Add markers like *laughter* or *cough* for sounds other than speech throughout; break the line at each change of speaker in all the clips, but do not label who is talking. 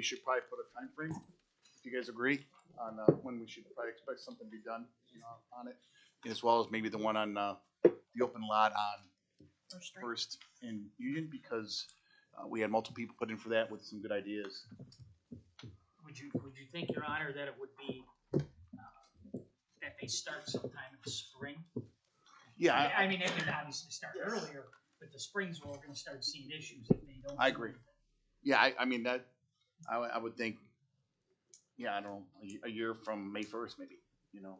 we should probably put a time frame. if you guys agree, on, uh, when we should probably expect something to be done, you know, on it. As well as maybe the one on, uh, the open lot on
First Street.
First in Union, because, uh, we had multiple people put in for that with some good ideas.
Would you, would you think, Your Honor, that it would be, uh, that they start sometime in the spring?
Yeah, I-
I, I mean, they can obviously start earlier, but the spring's where we're gonna start seeing issues if they don't.
I agree. Yeah, I, I mean, that, I, would- I would think, yeah, I don't, know, a ye- a year from May first, maybe, you know,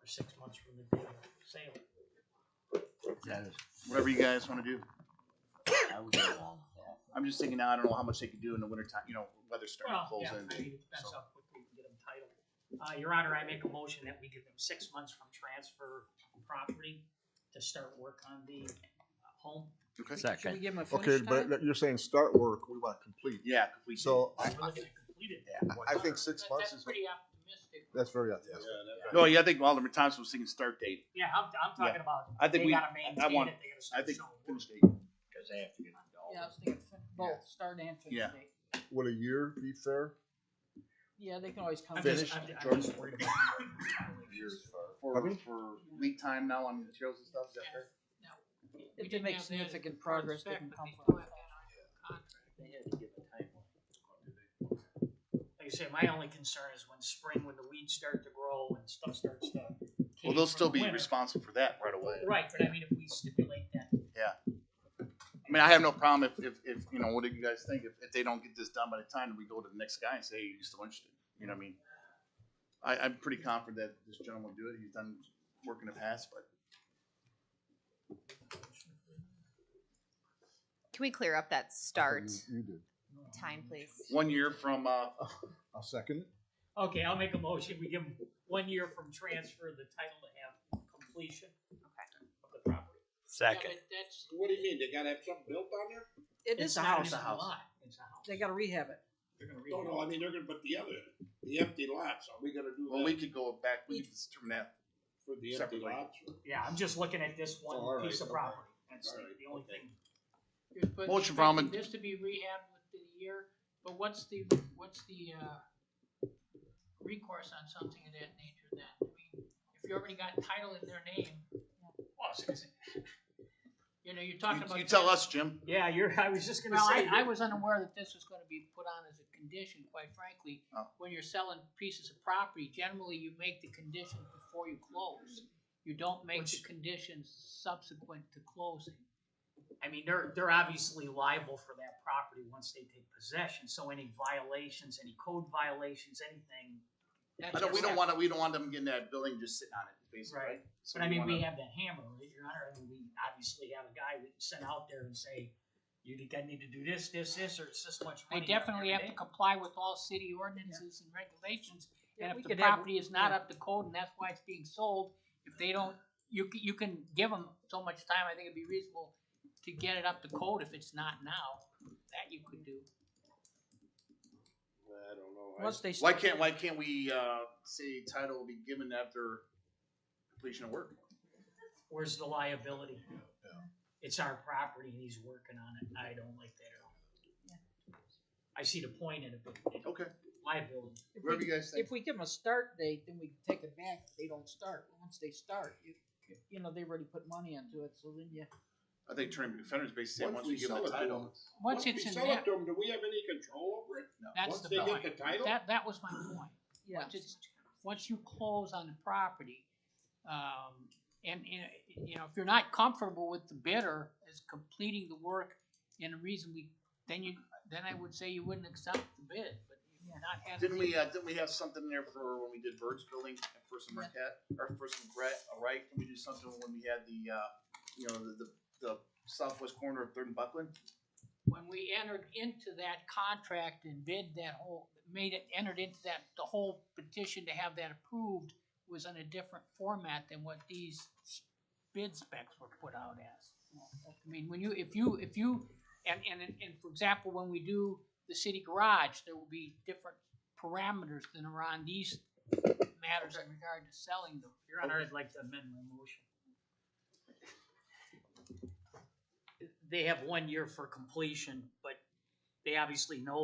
For six months from the day of sale.
that is- whatever you guys wanna do.
*coughs* I would go along with that.
I'm just thinking, now, I don't know how much they could do in the winter time, you know, weather starting to
Well,
close
yeah, I
in.
mean, that's
so.
how quickly we can get them titled. Uh, Your Honor, I make a motion that we give them six months from transfer of property to start work on the uh, home.
Okay.
Should we
Second.
give him a
Okay,
finish
but
time?
that- you're saying start work, we want to complete.
Yeah, complete.
So
We're
I,
looking to complete it
Yeah.
then.
I think six months is,
pretty optimistic.
that's very optimistic.
No, yeah, I think Alderman Thompson was thinking start date.
Yeah, I'm, I'm talking about,
I
they
think we, I
gotta maintain
want-
it, they gotta
I
start
think
showing work.
finish date.
Cause they have to get
Yeah, I was
involved.
thinking fin- both, start and finish
Yeah.
date.
Would a year be fair?
Yeah, they can always come.
I'm
back.
just, I'm I'm just worried
*coughs*
about.
For,
Pardon?
for lead time now on materials and stuff, is that fair?
If they make significant progress, they can come forward.
They had to give a timeline. Like I said, my only concern is when spring, when the weeds start to grow and stuff starts to.
Well,
cave
they'll
from
still
the
be
winter.
responsible for that right away.
Right, but I mean, if we stipulate that,
I mean, I have no problem if, if, if you know, what do you guys think? If, if they don't get this done by the time we go to the next guy and say, hey, you still interested? You know what I mean? I, I'm pretty confident that this gentleman will do it. He's done work in the past, but
Can we clear up that start
You you did.
time, please?
one year from, uh,
I'll second it.
okay, I'll make a motion, we give them one year from transfer, of the title to have completion of the property.
Second.
What do you mean? They gotta have something built on there?
It is a
not
house.
even
house.
lot, It's a house.
They gotta rehab it.
They're gonna
No, no, I mean, they're gonna put the other, the empty lots, are we gonna do
well, we
that
could go back, we could determine that.
for the empty
separately.
lots? or-
Yeah, I'm just looking at this
Oh, all
one
right,
piece of
okay.
property, that's
All
the
right,
the only
okay.
thing.
You're put-
Motion from
expecting
it.
This to be rehabbed within a year, but what's the, what's the, uh, recourse on something of that nature then? I mean, if you already got title in their name,
Well, it's-
you know, you're talking
You-
about.
You tell us, Jim.
Yeah, you're, I was just gonna
Well,
say.
I, I was unaware that this was gonna be put on as a condition, quite frankly.
Oh.
When you're selling pieces of property, generally you make the condition before you close. You don't make the
Which-
conditions subsequent to closing.
I mean, they're, they're obviously liable for that property once they take possession, so any violations, any code violations, anything.
I don't, we don't wanna, we don't want them getting that building just sitting on it, basically,
Right.
right? So
But I mean, we
wanna-
have that hammer, right, your honor, I mean, we obviously have a guy we can send out there and say, you think I need to do this, this, this, or it's this much
They
money.
definitely have to
every day."
comply with all city ordinances and regulations,
Yeah,
and
we
if the
could have-
property is not
yeah.
up to code and that's why it's being sold, if they don't, you, c- you can give them so much time, I think it'd be reasonable to get it up to code if it's not now, that you could do.
I don't know. I-
Once they.
Why
start-
can't, why can't we, uh, say title will be given after completion of work?
Where's the liability? It's our property and he's working on it, I don't like that at all. I see the point in it, but it-
Okay,
liability,
if we-
whatever you guys think.
If we give them a start date, then we can take it back if they don't start. Once they start, you, you know, they've already put money into it, so then you.
I think attorney defenders basically said,
Once
once
we
we give them
sell
the
it to
title.
them.
Once
we
it's in
sell it
there,
to 'em, Do we have any control over it?
that's
Once
the
they get
point,
the title?
that, that was my point.
Yeah.
Once it's, once you close on the property, um, and, and, you know, if you're not comfortable with the bidder as completing the work in a reasonably, then you, then I would say you wouldn't accept the bid, but if you're not having.
Didn't we, uh, didn't we have something there for when we did Bird's Building at First and Marquette, or First and Brett, all right? Can we do something when we had the, uh, you know, the, the, the southwest corner of Third and Buckland?
When we entered into that contract and bid that whole, made it, entered into that, the whole petition to have that approved was in a different format than what these bid specs were put out as. I mean, when you, if you, if you, and, and, and for example, when we do the city garage, there will be different parameters than are on these matters in regard to selling them.
your honor, I'd like to amend my motion. They have one year for completion, but they obviously know